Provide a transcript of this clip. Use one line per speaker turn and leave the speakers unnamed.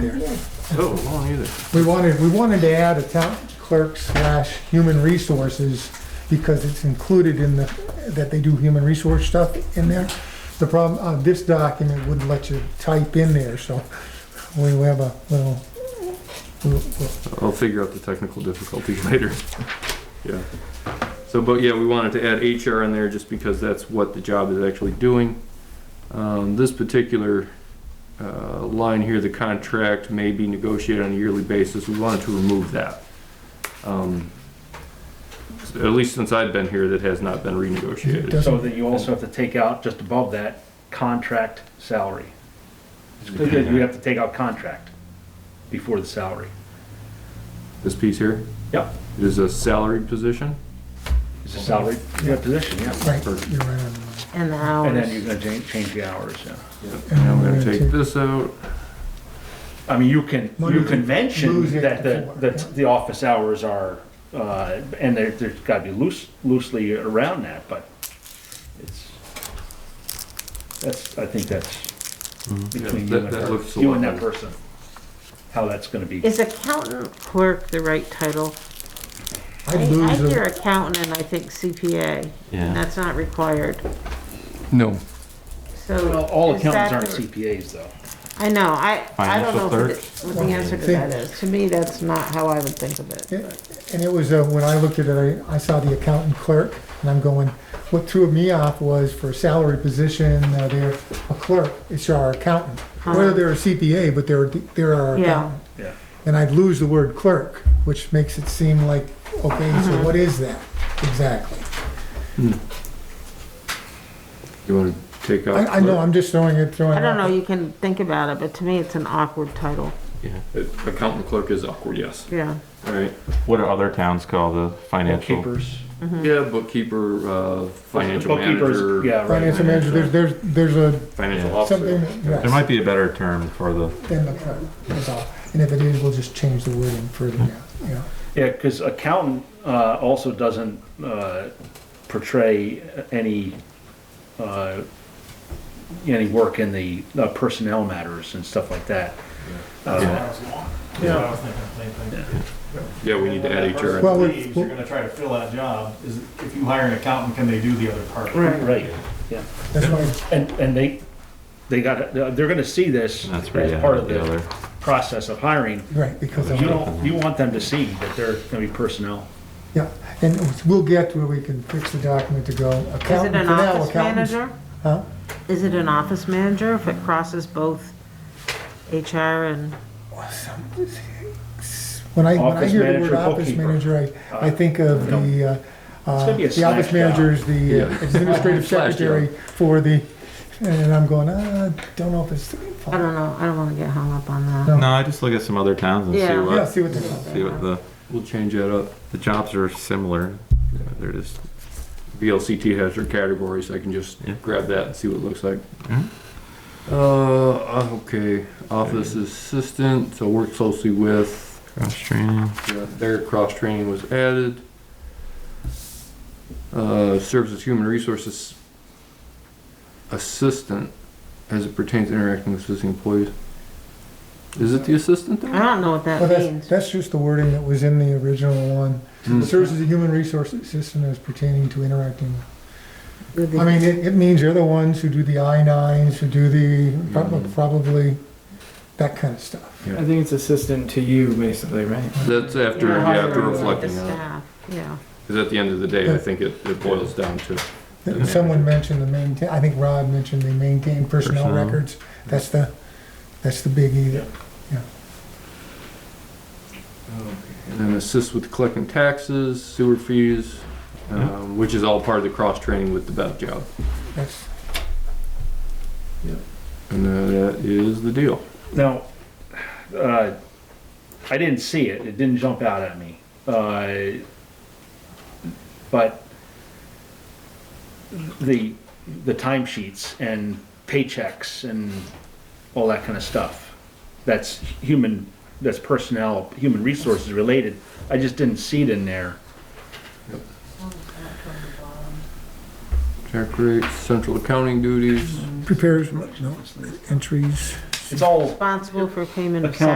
here.
Oh, long either.
We wanted, we wanted to add a town clerk slash human resources because it's included in the, that they do human resource stuff in there. The problem, uh, this document wouldn't let you type in there, so we have a little, we'll- we'll-
I'll figure out the technical difficulties later. Yeah. So, but yeah, we wanted to add HR in there just because that's what the job is actually doing. Um, this particular, uh, line here, the contract may be negotiated on a yearly basis, we wanted to remove that. Um, s- At least since I've been here, that has not been renegotiated.
So that you also have to take out, just above that, contract salary. You have to take out contract before the salary.
This piece here
Yep,
is a salaried position?
it's a salary yeah, position, yeah.
right, you're right on.
And the
And then you're
hours.
gonna change, change the hours, yeah.
And I'm gonna take this out.
I mean, you can, you
Monday,
can mention
Tuesday,
that the,
four, yeah.
that the office hours are, uh, and there, there's gotta be loose, loosely around that, but it's, that's, I think that's between
Mm-hmm. Yeah,
you
that-
and
that looks a
her, you and
lot
that
better.
person, how that's gonna be.
Is accountant clerk the right title? I
I'd
I
lose,
hear
the-
accountant and I think CPA, and that's not required.
No.
So.
Well, All
is
accountants
that
aren't
the-
CPAs though.
I know, I, I don't
Financial
know what the- what the answer to that
Think-
is. To me, that's not how I would think of it.
and it was, uh, when I looked at it, I, I saw the accountant clerk and I'm going, what threw me off was for a salary position, uh, they're a clerk, it's our accountant. Whether they're a CPA, but they're, they're our
Yeah,
accountant.
Yeah.
and I'd lose the word clerk, which makes it seem like, okay, so
Mm-hmm.
what is that exactly?
You wanna take out?
I, I know, I'm just throwing it, throwing it
I don't know,
out.
you can think about it, but to me, it's an awkward title,
Accountant clerk is awkward, yes.
yeah.
All right.
What do other towns call the financial?
Bookkeepers.
Yeah, bookkeeper, uh, financial
Bookkeepers,
manager,
Yeah, right.
Financial manager, there's, there's, there's a,
financial
Yeah.
something,
officer.
There
yes,
might be a better term for the,
then the clerk, that's all. And if it is, we'll just change the wording further now, you know.
Yeah, because accountant uh, also doesn't uh, portray any, uh, any work in the uh, personnel matters and stuff like that. Uh,
Yeah.
Yeah, we need to add HR.
Well, we-
Leaves, you're gonna try to fill that job, is if you hire an accountant, can they do the other part?
Right,
That's why,
and, and they, they got, they're gonna see this as
that's where you
part
have
of
the other.
the process of hiring.
right, because
You
of,
don't, you want them to see that they're gonna be personnel.
yeah, and we'll get where we can fix the document to go
Is it
accountant for
an
now,
office
accountants.
manager?
Huh?
Is it an office manager if it crosses both HR and,
When I, when I
Office
hear the word
manager,
office
bookkeeper.
manager, I, I think of the, uh, uh,
gonna be a
the office
slash
manager is the uh,
Yeah.
administrative
Slash job.
secretary for the, and I'm going, uh, don't know if it's.
I don't know, I don't wanna get hung up on that.
No.
No, I just look at some other towns and see
Yeah.
Yeah,
what,
see what the,
see what the,
We'll change that up.
the jobs are similar. They're just,
VLCT has their categories, I can just
Yeah.
grab that and see what it looks like.
Mhm.
Uh, okay, office assistant, so work closely with,
cross-training.
yeah, their cross training was added. Uh, serves as human resources assistant as it pertains to interacting with existing employees. Is it the assistant
I
there?
don't know what
well,
that
that's,
means.
that's just the wording that was in the original one.
Hmm.
Serves as a human resource assistant as pertaining to interacting.
With the-
I mean, it, it means you're the ones who do the I nines, who do the, probably,
Mhm.
probably that kind of stuff.
Yeah.
I think it's assistant to you, basically, right?
That's after,
Yeah,
yeah, after
uh, the
reflecting on it.
staff, Yeah.
Because at the end of the day, I think it, it boils down to,
And Someone mentioned the maintain, I think Rod mentioned they maintain personnel
Personnel.
records. That's the, that's the biggie that
and then assist with collecting taxes, sewer fees, um, which is all part of the cross-training with the bev job.
That's,
And uh, that is the deal.
Now, uh, I didn't see it, it didn't jump out at me. Uh, But the, the timesheets and paychecks and all that kind of stuff, that's human, that's personnel, human resources related, I just didn't see it in there.
Tax rates, central accounting duties.
prepares, no, entries.
It's all
Responsible for payment of
Account-